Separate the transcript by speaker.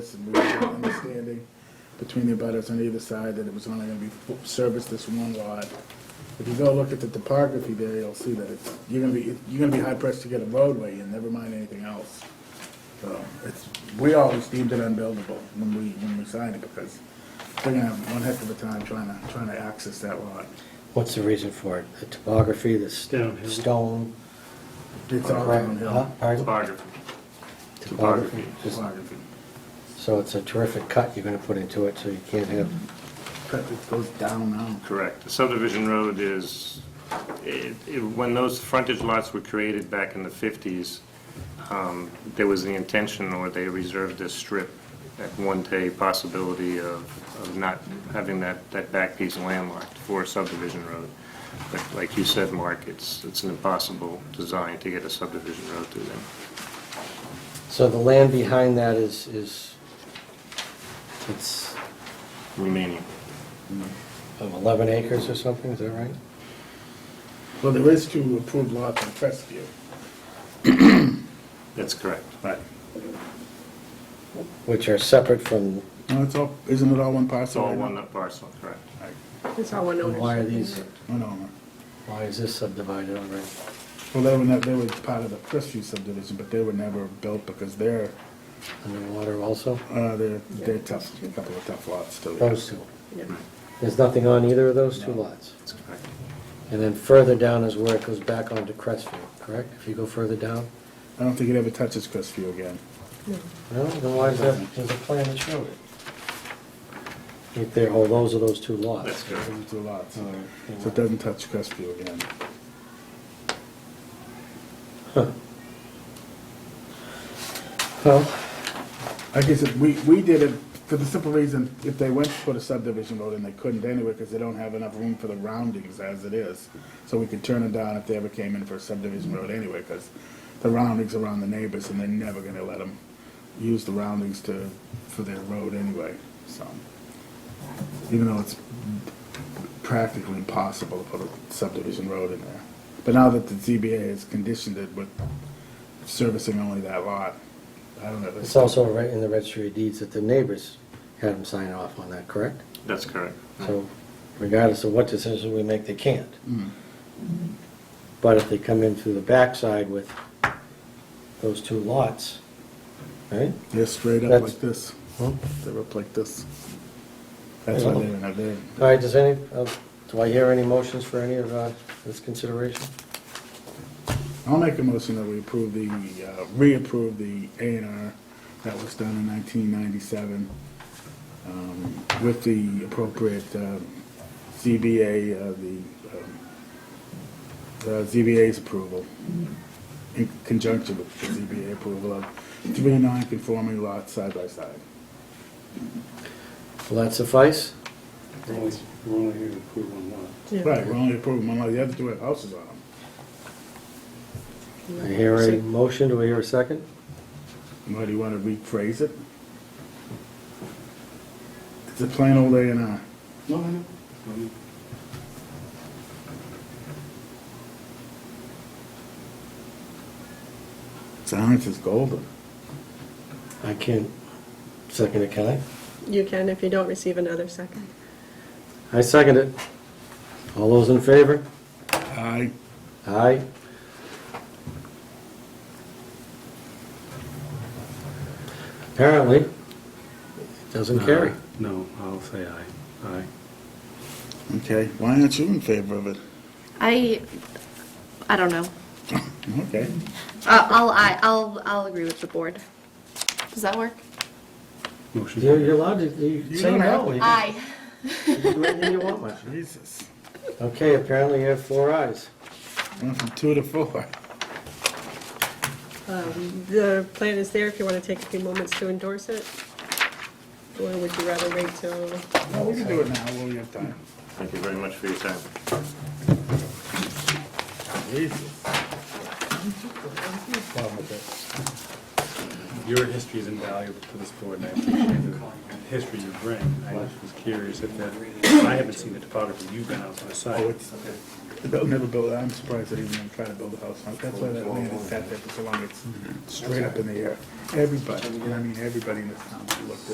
Speaker 1: this, and we were an understanding between the abutters on either side that it was only gonna be f- service this one lot. If you go look at the topography there, you'll see that it's, you're gonna be, you're gonna be high pressed to get a roadway and never mind anything else. So, it's, we always deemed it unbuildable when we, when we signed it, because they're gonna have one heck of a time trying to, trying to access that lot.
Speaker 2: What's the reason for it? The topography, the st-
Speaker 3: Downhill.
Speaker 2: stone?
Speaker 1: It's all
Speaker 2: Right, huh?
Speaker 1: downhill,
Speaker 2: Pardon?
Speaker 4: Topography.
Speaker 2: Topography. Just-
Speaker 1: topography.
Speaker 2: So it's a terrific cut you're gonna put into it, so you can't have,
Speaker 1: Cut- It goes down now.
Speaker 4: Correct. The subdivision road is, it- it- when those frontage lots were created back in the 50s, um, there was the intention, or they reserved this strip at one day possibility of of not having that, that back piece landlocked for a subdivision road. But like you said, Mark, it's, it's an impossible design to get a subdivision road through them.
Speaker 2: so the land behind that is, is, it's
Speaker 4: Remaining.
Speaker 2: um, 11 acres or something, is that right?
Speaker 1: Well, there is two approved lots in Crestview.
Speaker 4: That's correct.
Speaker 1: Right.
Speaker 2: Which are separate from,
Speaker 1: No, it's all, isn't it all one
Speaker 4: It's
Speaker 1: parcel?
Speaker 4: all
Speaker 1: right now?
Speaker 4: one parcel, correct.
Speaker 5: It's all one ownership.
Speaker 2: why are these,
Speaker 1: One owner.
Speaker 2: why is this subdivided already?
Speaker 1: Well, they were, not- they were part of the Crestview subdivision, but they were never built because they're,
Speaker 2: Underwater also?
Speaker 1: uh, they're, they're tough, a couple of tough lots still.
Speaker 2: Those two.
Speaker 5: Yeah.
Speaker 2: There's nothing on either of those two lots?
Speaker 4: That's correct.
Speaker 2: And then further down is where it goes back onto Crestview, correct? If you go further down?
Speaker 1: I don't think it ever touches Crestview again.
Speaker 5: No.
Speaker 2: No, then why is that, there's a plan that showed it. Right there, oh, those are those two lots.
Speaker 4: That's
Speaker 1: Those
Speaker 4: correct.
Speaker 1: are two lots.
Speaker 2: All right.
Speaker 1: So it doesn't touch Crestview again.
Speaker 2: Well,
Speaker 1: Like I said, we, we did it for the simple reason, if they went to put a subdivision road in, they couldn't anyway because they don't have enough room for the roundings as it is. So we could turn it down if they ever came in for a subdivision road anyway because the roundings are on the neighbors and they're never going to let them use the roundings to, for their road anyway, so. Even though it's practically impossible to put a subdivision road in there. But now that the ZBA has conditioned it with servicing only that lot, I don't know. if
Speaker 2: it's also right in the registry of deeds that the neighbors had them sign off on that, correct?
Speaker 4: That's correct.
Speaker 2: So regardless of what decision we make, they can't. But if they come in through the backside with those two lots, right?
Speaker 1: They're straight up
Speaker 2: That's-
Speaker 1: like this.
Speaker 2: All
Speaker 1: They're up like this. That's why they didn't have their,
Speaker 2: right, does any, uh, do I hear any motions for any of uh, this consideration?
Speaker 1: I'll make a motion that we approve the, uh, reapprove the A and R that was done in nineteen ninety-seven um, with the appropriate um, ZBA, uh, the, um, the ZBA's approval in conjunction with the ZBA approval of three non-conforming lots side by side.
Speaker 2: Will that suffice?
Speaker 3: We're only we're only here to approve on one.
Speaker 5: Yeah.
Speaker 1: Right, we're only approving one, lot. the other two have houses on them.
Speaker 2: I hear a motion, do I hear a second?
Speaker 1: Why do you want to rephrase it? It's a plain old A and R.
Speaker 3: No, I know. I know.
Speaker 1: Silence is golden.
Speaker 2: I can't second it, can I?
Speaker 5: You can if you don't receive another second.
Speaker 2: I second it. All those in favor?
Speaker 1: I,
Speaker 2: Aye. Apparently, it doesn't
Speaker 1: Uh-huh.
Speaker 2: carry.
Speaker 3: No, I'll say aye. Aye.
Speaker 1: okay, why aren't you in favor of it?
Speaker 6: I, I don't know.
Speaker 1: Okay,
Speaker 6: Uh, I'll, I, I'll, I'll agree with the board. Does that work?
Speaker 3: Motion.
Speaker 2: You're you're allowed to, you
Speaker 1: You
Speaker 2: say
Speaker 1: don't have
Speaker 2: no.
Speaker 1: to.
Speaker 2: You can-
Speaker 6: Aye.
Speaker 2: you can do anything you want, Mike.
Speaker 1: Jesus.
Speaker 2: Okay, apparently you have four ayes.
Speaker 1: Went from two to four.
Speaker 5: Um, The plan is there if you want to take a few moments to endorse it. Or would you rather wait till,
Speaker 1: Well, we can do it now while we have time.
Speaker 4: Thank you very much for your time.
Speaker 1: Jesus.
Speaker 3: Your history is invaluable to this board, and I appreciate the history you bring. I just was curious if that, I haven't seen the topography you've been out to the site.
Speaker 1: Oh, it's, They'll never build, I'm surprised they even tried to build a house on it. That's why that land has sat there for so long. It's straight up in the air. Everybody, and I mean everybody in this town looked at